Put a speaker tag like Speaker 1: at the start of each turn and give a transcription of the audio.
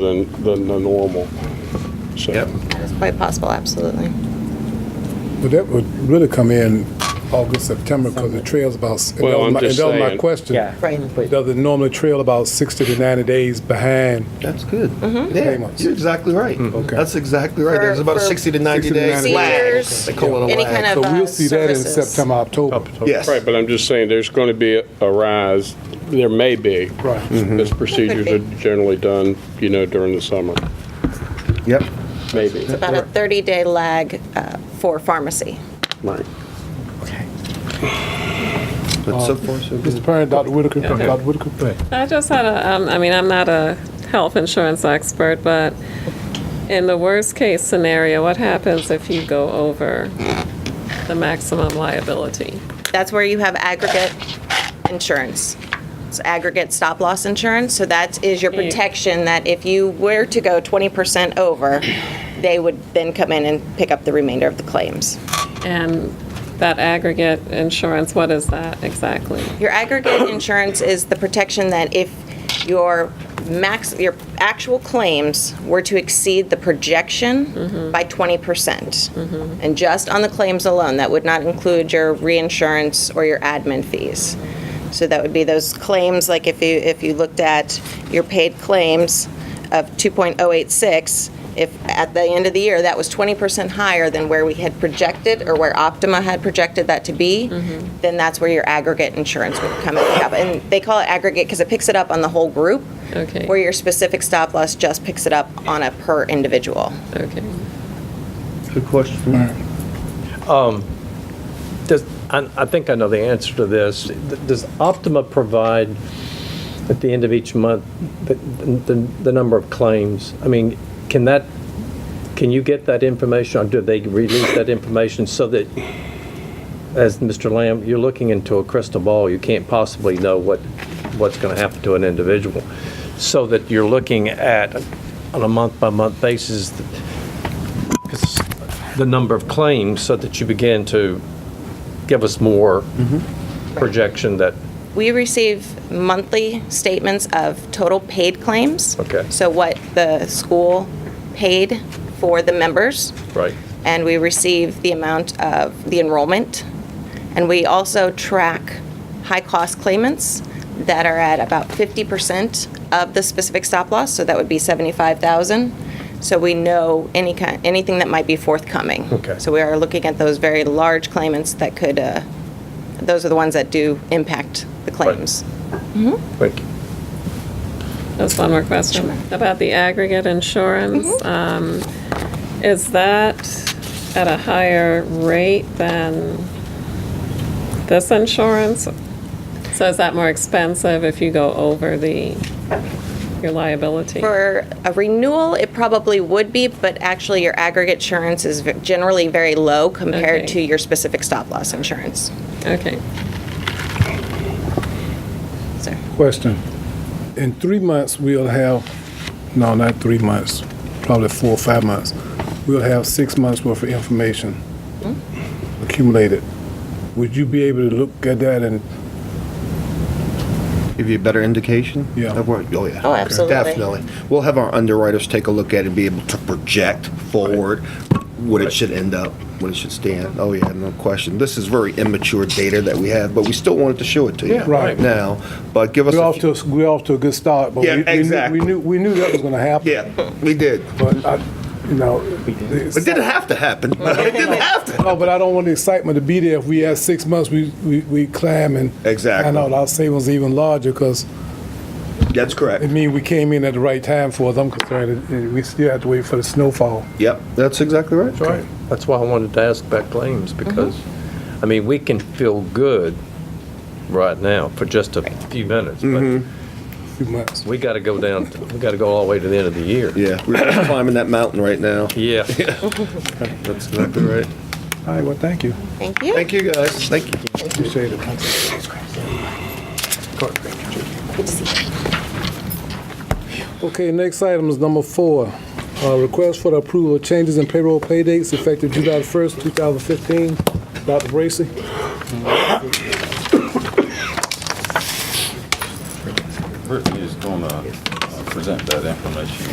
Speaker 1: than, than the normal. So,
Speaker 2: Yep.
Speaker 3: It's quite possible, absolutely.
Speaker 4: But that would really come in August, September, because the trail's about, and that
Speaker 1: Well,
Speaker 4: was
Speaker 1: I'm
Speaker 4: my- and
Speaker 1: just
Speaker 4: that was my
Speaker 1: saying.
Speaker 4: question.
Speaker 2: Yeah.
Speaker 3: Right.
Speaker 4: Does it normally trail about 60 to 90 days behind?
Speaker 5: That's good. Mm-hmm. Yeah,
Speaker 4: Payments.
Speaker 5: you're exactly right.
Speaker 1: Mm-hmm.
Speaker 4: Okay.
Speaker 5: That's exactly right.
Speaker 3: For-
Speaker 5: There's about a
Speaker 3: for
Speaker 5: 60 to 90
Speaker 4: 60 to
Speaker 5: days
Speaker 4: 90
Speaker 5: lag.
Speaker 3: days.
Speaker 5: They call it a
Speaker 3: Any kind
Speaker 5: lag.
Speaker 3: of,
Speaker 4: So
Speaker 3: uh,
Speaker 4: we'll see that in
Speaker 3: services.
Speaker 4: September, October.
Speaker 5: Yes.
Speaker 1: right, but I'm just saying, there's going to be a- a rise, there may be.
Speaker 4: Right.
Speaker 1: Because procedures
Speaker 3: be.
Speaker 1: are generally done, you know, during the summer,
Speaker 5: Yep.
Speaker 1: maybe.
Speaker 3: About a 30-day lag uh, for pharmacy.
Speaker 1: Right.
Speaker 5: But so far, so
Speaker 4: Mr.
Speaker 5: good.
Speaker 4: Perrin, Dr. Whitaker, Dr. Whitaker.
Speaker 6: I just had a, um, I mean, I'm not a health insurance expert, but in the worst case scenario, what happens if you go over the maximum liability?
Speaker 3: That's where you have aggregate insurance. It's aggregate stop-loss insurance, so that is your protection that if you were to go 20% over, they would then come in and pick up the remainder of the claims.
Speaker 6: And that aggregate insurance, what is that exactly?
Speaker 3: Your aggregate insurance is the protection that if your max, your actual claims were to exceed the projection by 20%. And just on the claims alone, that would not include your reinsurance or your admin fees. So that would be those claims, like if you, if you looked at your paid claims of 2.086, if at the end of the year, that was 20% higher than where we had projected or where Optima had projected that to be, then that's where your aggregate insurance would come and pick up. And they call it aggregate because it picks it up on the whole group.
Speaker 6: Okay.
Speaker 3: Where your specific stop loss just picks it up on a per individual.
Speaker 6: Okay.
Speaker 5: Good question.
Speaker 2: Does, I, I think I know the answer to this. Does Optima provide at the end of each month the, the, the number of claims? I mean, can that, can you get that information or do they release that information so that, as Mr. Lamb, you're looking into a crystal ball, you can't possibly know what, what's going to happen to an individual? So that you're looking at, on a month-by-month basis, the number of claims so that you begin to give us more projection that,
Speaker 3: We receive monthly statements of total paid claims.
Speaker 2: Okay.
Speaker 3: So what the school paid for the members.
Speaker 2: right?
Speaker 3: and we receive the amount of the enrollment. And we also track high-cost claimants that are at about 50% of the specific stop loss, so that would be 75,000. So we know any kind, anything that might be forthcoming.
Speaker 2: Okay.
Speaker 3: So we are looking at those very large claimants that could, uh, those are the ones that do impact the claims.
Speaker 2: Thank you.
Speaker 6: Just one more question about the aggregate insurance. Um, Is that at a higher rate than this insurance? So is that more expensive if you go over the, your liability?
Speaker 3: For a renewal, it probably would be, but actually your aggregate insurance is ve- generally very low compared
Speaker 6: Okay.
Speaker 3: to your specific stop loss insurance.
Speaker 6: Okay.
Speaker 3: So-
Speaker 4: Question. In three months, we'll have, no, not three months, probably four or five months. We'll have six months worth of information accumulated. Would you be able to look at that and,
Speaker 5: Give you a better indication?
Speaker 4: Yeah.
Speaker 5: Of what, oh, yeah.
Speaker 3: Oh, absolutely.
Speaker 5: Definitely. We'll have our underwriters take a look at it and be able to project forward what it should end up, what it should stand. Oh, yeah, no question. This is very immature data that we have, but we still wanted to show it to you.
Speaker 4: Yeah, right.
Speaker 5: Now, but give us.
Speaker 4: we're
Speaker 5: a
Speaker 4: off
Speaker 5: few-
Speaker 4: to, a- we're off to a good start, but we-
Speaker 5: Yeah,
Speaker 4: we knew-
Speaker 5: exactly.
Speaker 4: we knew, we knew that was gonna happen.
Speaker 5: Yeah, we did.
Speaker 4: But I, you know, it's-
Speaker 5: It didn't have to happen. It didn't have to.
Speaker 4: no, but I don't want the excitement to be there. If we had six months, we, we, we climb and.
Speaker 5: Exactly.
Speaker 4: I know, our savings even larger because
Speaker 5: That's correct.
Speaker 4: it mean we came in at the right time for us. I'm concerned, that, uh, we still have to wait for the snowfall.
Speaker 5: Yep, that's exactly right.
Speaker 4: Right.
Speaker 2: That's why I wanted to ask about claims, because, I mean, we can feel good right now for just a few minutes, but
Speaker 4: Few months.
Speaker 2: we got to go down, we got to go all the way to the end of the year.
Speaker 5: Yeah, we're climbing that mountain right now.
Speaker 2: Yeah.
Speaker 5: That's exactly right.
Speaker 4: All right, well, thank you.
Speaker 3: Thank you.
Speaker 5: Thank you, guys. Thank you.
Speaker 4: Appreciate it. Okay, next item is number four. Uh, Request for the approval of changes in payroll pay dates effective July 1st, 2015. Dr. Bracy?
Speaker 7: Brittany is going to present that information